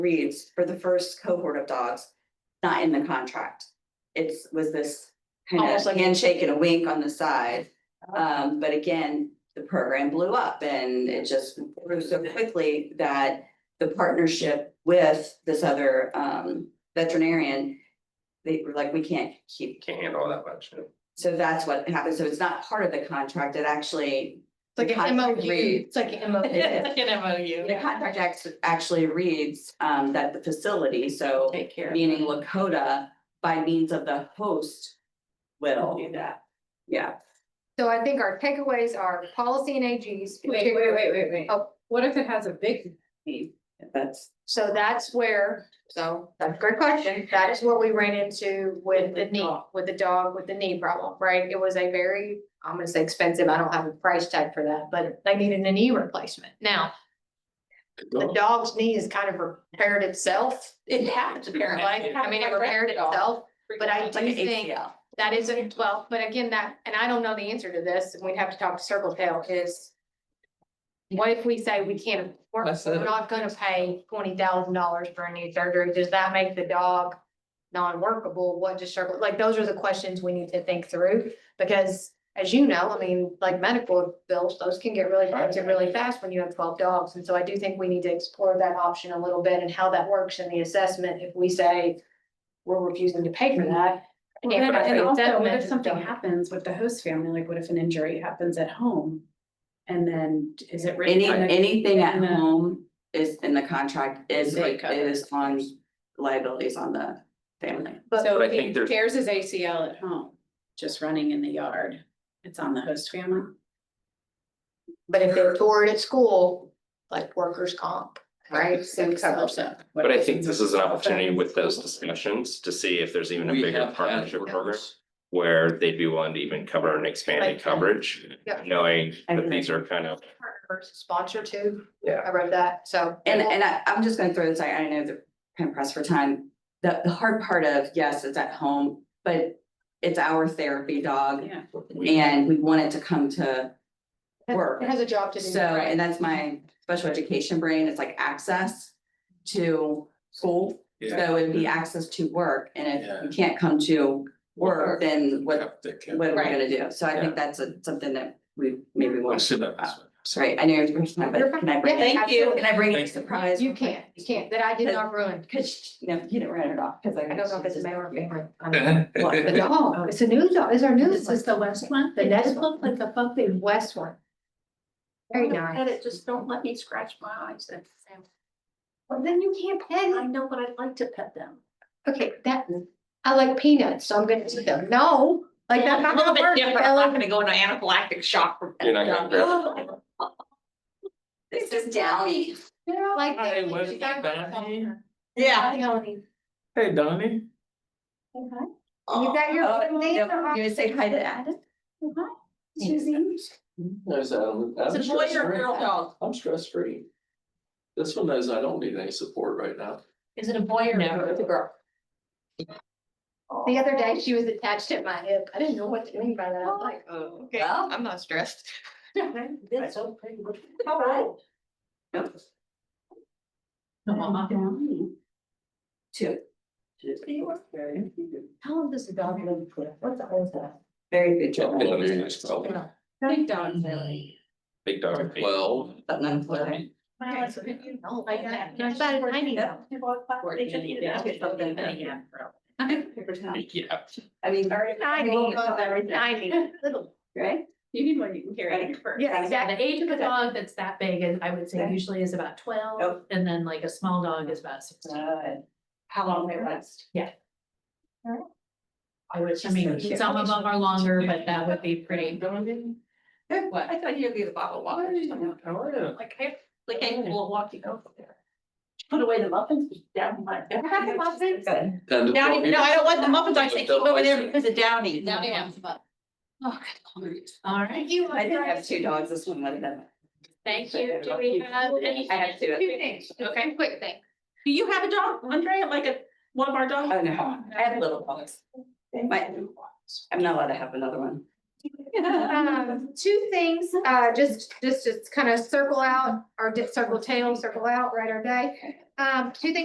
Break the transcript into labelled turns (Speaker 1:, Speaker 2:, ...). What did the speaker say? Speaker 1: reads for the first cohort of dogs, not in the contract. It's was this kind of
Speaker 2: Almost like- Uh-huh.
Speaker 1: handshake and a wink on the side. Um, but again, the program blew up and it just grew so quickly that the partnership with this other um veterinarian. They were like, we can't keep,
Speaker 3: can't handle all that much.
Speaker 1: so that's what happened. So it's not part of the contract. It actually
Speaker 2: It's like an
Speaker 1: Contract
Speaker 2: MOU,
Speaker 1: reads.
Speaker 2: it's like an MOU,
Speaker 1: It
Speaker 2: it's like an
Speaker 1: The
Speaker 2: MOU.
Speaker 1: contract act actually reads um that the facility, so
Speaker 2: Take care. of
Speaker 1: meaning
Speaker 2: it.
Speaker 1: Lakota by means of the host will,
Speaker 2: Do that.
Speaker 1: yeah.
Speaker 4: So I think our takeaways are policy and AGs.
Speaker 5: Wait, wait, wait, wait, wait.
Speaker 4: Oh.
Speaker 5: What if it has a big?
Speaker 1: That's,
Speaker 4: So that's where, so that's a great question. That is what we ran into with the
Speaker 5: With the
Speaker 4: knee,
Speaker 5: dog.
Speaker 4: with the dog, with the knee problem, right? It was a very, I'm gonna say expensive. I don't have a price tag for that, but they needed a knee replacement. Now, the dog's knee has kind of repaired itself. It has apparently. I mean, it repaired itself, but I
Speaker 1: like
Speaker 4: do
Speaker 1: an
Speaker 4: think
Speaker 1: ACL.
Speaker 4: That isn't, well, but again, that, and I don't know the answer to this, and we'd have to talk to Circle Tail is. What if we say we can't, we're
Speaker 5: That's
Speaker 4: we're
Speaker 5: it.
Speaker 4: not gonna pay twenty thousand dollars for a knee surgery, does that make the dog? Non-workable, what does Circle, like, those are the questions we need to think through, because as you know, I mean, like medical bills, those can get really expensive really fast when you have twelve dogs. And so I do think we need to explore that option a little bit and how that works in the assessment, if we say. We're refusing to pay for that.
Speaker 5: And
Speaker 4: if our
Speaker 5: and also, what
Speaker 4: assessment
Speaker 5: if
Speaker 4: is
Speaker 5: something
Speaker 4: done-
Speaker 5: happens with the host family, like what if an injury happens at home? And then is it written?
Speaker 1: Any,
Speaker 5: on the-
Speaker 1: anything at
Speaker 5: in the-
Speaker 1: home is in the contract is
Speaker 5: They
Speaker 1: like,
Speaker 5: cover.
Speaker 1: is on liabilities on the family.
Speaker 4: But
Speaker 5: So
Speaker 3: But I
Speaker 5: if
Speaker 3: think
Speaker 5: he
Speaker 3: there's-
Speaker 5: tears his ACL at home, just running in the yard, it's on the host family.
Speaker 4: But if they tore it at school, like workers' comp, right? So
Speaker 5: It covers
Speaker 4: so-
Speaker 5: it.
Speaker 3: But I think this is an opportunity with those discussions to see if there's even a
Speaker 6: We
Speaker 3: bigger
Speaker 6: have had
Speaker 3: partnership program.
Speaker 6: workers.
Speaker 3: Where they'd be willing to even cover an expanded
Speaker 4: Like-
Speaker 3: coverage,
Speaker 4: Yeah.
Speaker 3: knowing that
Speaker 1: Everything.
Speaker 3: these are kind of,
Speaker 4: Partner versus Sponsor too.
Speaker 3: Yeah.
Speaker 4: I wrote that, so.
Speaker 1: And, and I, I'm just gonna throw this, I, I know the kind of pressed for time. The, the hard part of, yes, it's at home, but it's our therapy dog
Speaker 5: Yeah.
Speaker 3: we,
Speaker 1: and we want it to come to work.
Speaker 4: It has a job to do.
Speaker 1: So, and that's my special education brain, it's like access to school. So it'd be access to work, and if you can't come to work, then what, what are we gonna do? So I think that's a, something that we maybe
Speaker 6: I'll
Speaker 1: want.
Speaker 6: sit down this way.
Speaker 1: Sorry, I know you're the first time, but can I bring,
Speaker 4: Yeah,
Speaker 1: it-
Speaker 2: Thank you.
Speaker 4: absolutely.
Speaker 1: can I bring a surprise?
Speaker 4: You can't, you can't, that I did not ruin.
Speaker 1: Cause, no, you didn't run it off, cause I.
Speaker 4: I don't know if it's a male or female. I don't know.
Speaker 1: What,
Speaker 4: The dog, it's a new dog, it's our new,
Speaker 5: This
Speaker 4: one.
Speaker 5: is the west one,
Speaker 4: The
Speaker 5: the
Speaker 4: next
Speaker 5: next one, like a puppy.
Speaker 4: the west one. Very nice.
Speaker 5: Pet it, just don't let me scratch my eyes. That's-
Speaker 4: Well, then you can't
Speaker 5: I
Speaker 4: pet.
Speaker 5: know, but I'd like to pet them.
Speaker 4: Okay, that, I like peanuts, so I'm gonna eat them. No, like that's not gonna work. Ellen.
Speaker 2: gonna go into anaphylactic shock. from-
Speaker 3: You're not gonna
Speaker 2: Yeah.
Speaker 1: This is downy.
Speaker 4: Like.
Speaker 6: Hi,
Speaker 4: they-
Speaker 6: what's
Speaker 4: she's got-
Speaker 6: Donnie?
Speaker 2: Yeah.
Speaker 4: Hi, Ellen.
Speaker 6: Hey, Donnie.
Speaker 4: You got your.
Speaker 1: Oh,
Speaker 4: own
Speaker 1: no,
Speaker 4: name?
Speaker 1: You're gonna say hi to Adam?
Speaker 4: Susie?
Speaker 6: There's Adam.
Speaker 2: It's a boy or a girl dog?
Speaker 6: I'm stress free. This one knows I don't need any support right now.
Speaker 2: Is it a boy or? No, it's a girl.
Speaker 4: The other day, she was attached at my hip. I didn't know what to mean by that. I'm like,
Speaker 2: oh,
Speaker 4: okay, I'm not stressed.
Speaker 2: That's so pretty. All right.
Speaker 1: Nope.
Speaker 2: Mama.
Speaker 1: Two.
Speaker 4: How long does the dog live for? What's the old stuff?
Speaker 1: Very good job.
Speaker 6: Eleven years, twelve,
Speaker 5: Big dogs, really.
Speaker 3: big dog. big-
Speaker 6: twelve.
Speaker 1: Something unemployed.
Speaker 4: No,
Speaker 5: like that.
Speaker 4: It's about a tiny dog.
Speaker 1: Paper towel.
Speaker 3: Yeah,
Speaker 1: I mean.
Speaker 4: Tiny, tiny, little.
Speaker 1: Right?
Speaker 5: You need one you can carry in your purse.
Speaker 4: Yeah, exactly.
Speaker 7: The age of a dog that's that big is, I would say
Speaker 1: Okay. Oh.
Speaker 7: usually is about twelve,
Speaker 1: Yep.
Speaker 7: and then like a small dog is about sixteen.
Speaker 1: Uh,
Speaker 5: How long they last.
Speaker 7: I would, I mean,
Speaker 1: cute.
Speaker 7: some of them are longer, but that would be pretty.
Speaker 5: What?
Speaker 2: I thought you'd be the bottle
Speaker 6: How
Speaker 2: water.
Speaker 6: are you?
Speaker 2: Like, I, like, I will walk you over there. Put away the muffins down my.
Speaker 4: I have the muffins.
Speaker 2: Good.
Speaker 6: Ten to
Speaker 2: Downy,
Speaker 6: twelve
Speaker 2: no, I
Speaker 6: years.
Speaker 2: don't want the muffins. I say keep
Speaker 6: Double
Speaker 2: over there
Speaker 6: ice cream.
Speaker 2: because of Downy.
Speaker 7: Downy wants
Speaker 2: Oh, good. lord.
Speaker 7: All right,
Speaker 4: You.
Speaker 1: I did have two dogs, this one let them.
Speaker 7: thank you. Do we have any?
Speaker 1: I have two.
Speaker 4: Two things, okay, quick thing.
Speaker 2: Do you have a dog, Andrea, like a, one of our dogs?
Speaker 1: Oh, no, I have little dogs. My- I'm not allowed to have another one.
Speaker 4: Um, two things, uh, just, just, just kind of circle out, or just circle tail, circle out, right, or day. Um, two things